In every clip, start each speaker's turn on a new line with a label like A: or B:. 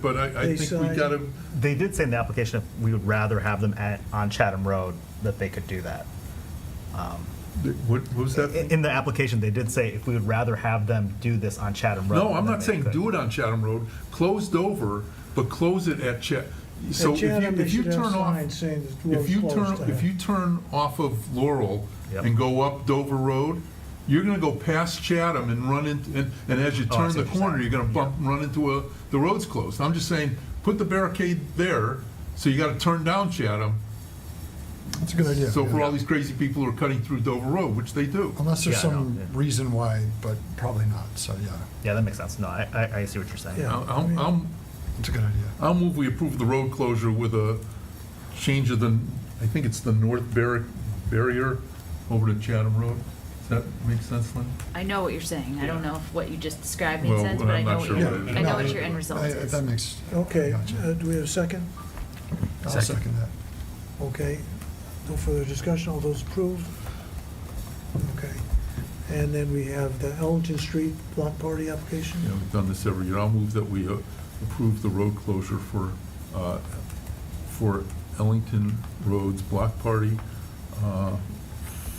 A: but I, I
B: They
A: think we
B: sign-
A: gotta,
C: They did say in the application if we would rather have them at, on Chatham Road, that they could do that.
A: what what was
B: Eh,
C: I-
A: that?
C: In the application, they did say if we would rather have them do this on Chatham Road.
A: No, I'm not saying do it on Chatham Road, closed over, but close it at Chat. So
B: At
A: if you,
B: Chatham, they
A: if you
B: should have
A: turn off,
B: signs saying the road's
A: if you
B: closed
A: turn,
B: to
A: if
B: her.
A: you turn off of Laurel
C: Yep.
A: and go up Dover Road, you're gonna go past Chatham and run into, and, and as you
C: Oh, I
A: turn
C: see
A: the
C: what you're
A: corner, you're gonna
C: saying.
A: bump, and run into a, the road's closed. I'm just saying, put the barricade there, so you gotta turn down Chatham.
D: That's a good idea.
A: So for
D: yeah.
A: all these crazy people who are cutting through Dover Road, which they do.
D: Unless there's
C: Yeah, I know,
D: some
C: yeah.
D: reason why, but probably not, so yeah,
C: Yeah, that makes sense. No, I, I, I see what you're saying.
D: Yeah.
A: I'll, I'll- I'll,
D: it's a good idea.
A: I'll move we approve the road closure with a change of the, I think it's the north barri- barrier over to Chatham Road. Does that make sense, Lynn?
E: I know what you're saying. I don't know if what you just described made
A: Well,
E: sense, but
A: I'm not
E: I know what
A: sure
E: your,
A: what it is.
E: I know
D: no,
E: what your end result
D: I-
E: is.
D: That makes,
B: Okay,
D: Gotcha.
B: uh, do we have a second?
D: I'll second that.
B: Okay, no further discussion, all those approved? Okay, and then we have the Ellington Street block party application?
A: Yeah, we've done this every year. I'll move that we uh, approve the road closure for, uh, for Ellington Roads Block Party uh,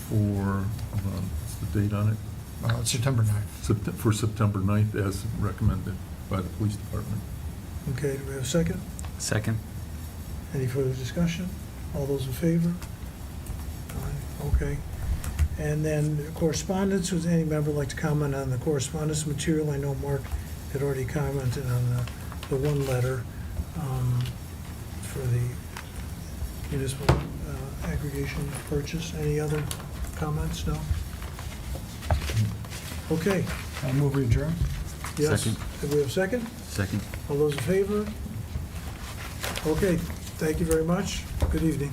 A: for, hold on, what's the date on it?
D: Uh, it's September 9th.
A: Sept- For September 9th, as recommended by the police department.
B: Okay, do we have a second?
F: Second.
B: Any further discussion? All those in favor? Aye, Okay. And then correspondence, would any member like to comment on the correspondence material? I know Mark had already commented on the, the one letter um, for the municipal uh, aggregation purchase. Any other comments? No? Okay,
D: I'll move we adjourn.
B: yes.
F: Second.
B: Do we have a second?
F: Second.
B: All those in favor? Okay, thank you very much. Good evening.